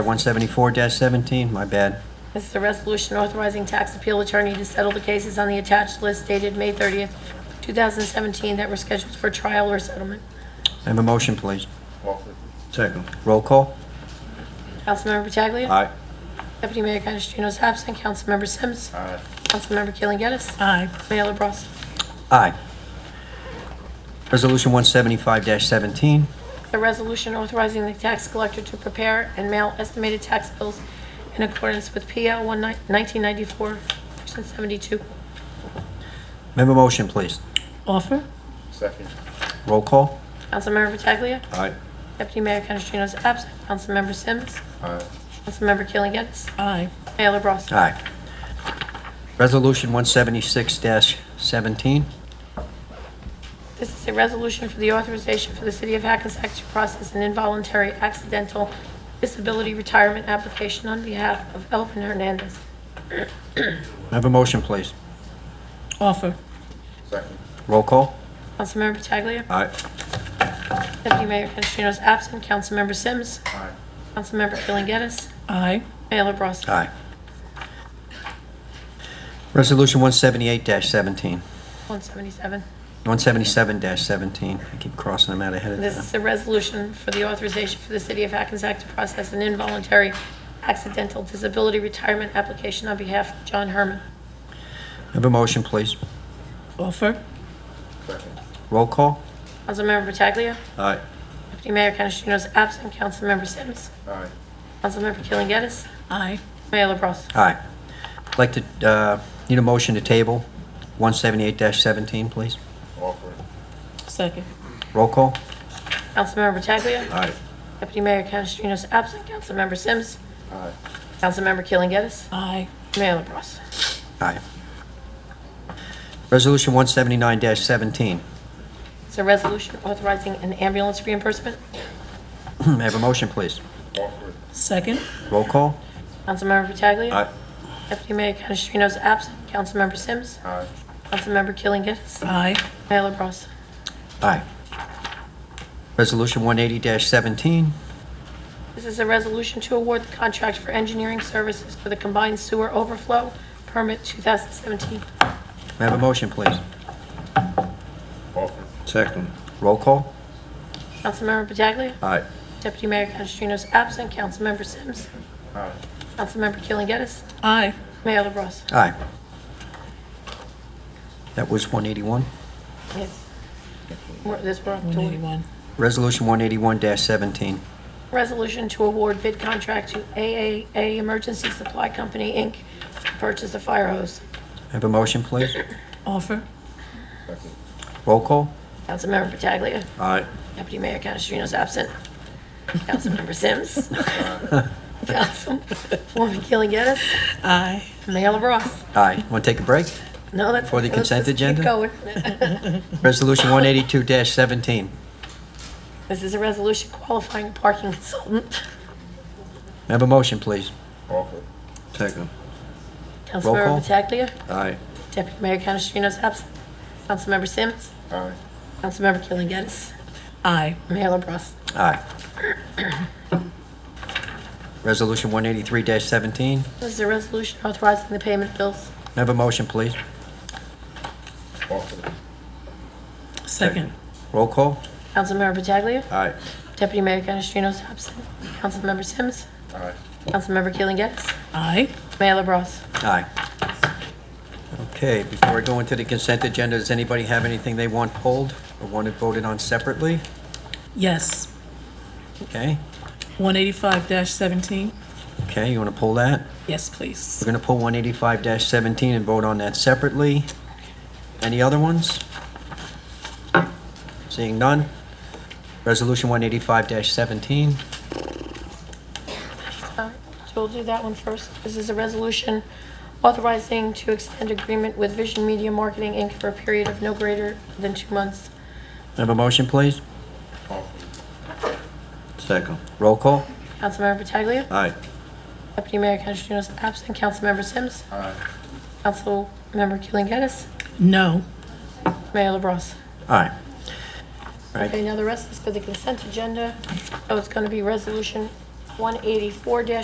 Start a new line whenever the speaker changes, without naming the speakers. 174-17, my bad.
This is a resolution authorizing tax appeal attorney to settle the cases on the attached list dated May 30th, 2017, that were scheduled for trial or settlement.
I Have a motion, please.
Offer.
Second.
Roll call?
Councilmember Pataglia.
Aye.
Deputy Mayor Canestrino is absent. Councilmember Sims.
Aye.
Councilmember Keeling Gettis.
aye,
Mayor LaBrus.
Aye. Resolution 175-17,
The resolution authorizing the tax collector to prepare and mail estimated tax bills in accordance with PL 1994, Section 72.
May I have a motion, please.
offer,
Second.
Roll call?
Councilmember Pataglia.
Aye.
Deputy Mayor Canestrino is absent. Councilmember Sims.
Aye.
Councilmember Keeling Gettis.
aye,
Mayor LaBrus.
Aye. Resolution 176-17,
This is a resolution for the authorization for the City of Hackensack to process an involuntary accidental disability retirement application on behalf of Elvin Hernandez.
May I have a motion, please.
offer,
Second.
Roll call?
Councilmember Pataglia.
Aye.
Deputy Mayor Canestrino is absent. Councilmember Sims.
Aye.
Councilmember Killen Gettis.
aye,
Mayor LaBrus.
Aye. Resolution 178-17,
177.
177-17, I keep crossing them out ahead of
This
time.
is a resolution for the authorization for the City of Hackensack to process an involuntary accidental disability retirement application on behalf of John Herman.
May I Have a motion, please.
offer,
Second.
Roll call?
Councilmember Pataglia.
Aye.
Deputy Mayor Canestrino is absent. Councilmember Sims.
Aye.
Councilmember Keeling Gettis.
aye,
Mayor LaBrus.
Aye. I'd Like to, uh, need a motion to table 178-17, please.
Offer.
second,
Roll call?
Councilmember Pataglia.
Aye.
Deputy Mayor Canestrino is absent. Councilmember Sims.
Aye.
Councilmember Keeling Gettis.
aye,
Mayor LaBrus.
Aye. Resolution 179-17.
It's a resolution authorizing an ambulance reimbursement.
May I have a motion, please?
Offer.
second,
Roll call?
Councilmember Pataglia. Deputy Mayor Canestrino is absent. Councilmember Sims.
Aye.
Councilmember Killen Gettis.
aye,
Mayor LaBrus.
Aye. Resolution 180-17.
This is a resolution to award the contract for engineering services for the combined sewer overflow permit 2017.
May I have a motion, please?
Offer.
Second.
Roll call?
Councilmember Pataglia.
Aye.
Deputy Mayor Canestrino is absent. Councilmember Sims.
Aye.
Councilmember Killen Gettis.
aye,
Mayor LaBrus.
Aye. That was 181.
Yes. We're- This we're up to.
181,
Resolution 181-17.
Resolution to award bid contract to AAA Emergency Supply Company, Inc. to Purchase a fire hose.
May I have a motion, please?
offer,
Second.
Roll call?
Councilmember Pataglia.
Aye.
Deputy Mayor Canestrino is absent. Councilmember Sims. Councilwoman Keeling Gettis.
aye,
Mayor LaBrus.
Aye. Want to take a break?
No, that's.
For the
let's
consent
just keep
agenda?
going.
Resolution 182-17. May
This is a resolution qualifying parking consultant.
I have a motion, please?
Offer.
Second.
call.
Councilmember Pataglia.
Aye.
Deputy Mayor Canestrino is absent. Councilmember Sims.
Aye.
Councilmember Keeling Gettis.
aye,
Mayor LaBrus.
Aye. Resolution 183-17. May
This is a resolution authorizing the payment of bills.
I Have a motion, please.
Offer.
second,
Roll call?
Councilmember Pataglia.
Aye.
Deputy Mayor Canestrino is absent. Councilmember Sims.
Aye.
Councilmember Keeling Gettis.
aye,
Mayor LaBrus.
Aye. Okay, before I go into the consent agenda, does anybody have anything they want pulled or want it voted on separately?
yes,
Okay,
185-17,
okay, you want to pull that?
yes, please,
We're going to pull 185-17 and vote on that separately. Any other ones? Seeing none. Resolution 185-17.
Uh, So we'll do that one first. This is a resolution authorizing to extend agreement with Vision Media Marketing, Inc. for a period of no greater than two months.
Have a motion, please?
Offer.
Second.
Roll call?
Councilmember Pataglia.
Aye.
Deputy Mayor Canestrino is absent. Councilmember Sims.
Aye.
Councilmember Keeling Gettis.
no,
Mayor LaBrus.
Aye.
Oh, Okay, now the rest is for the consent agenda. So it's going to be resolution 184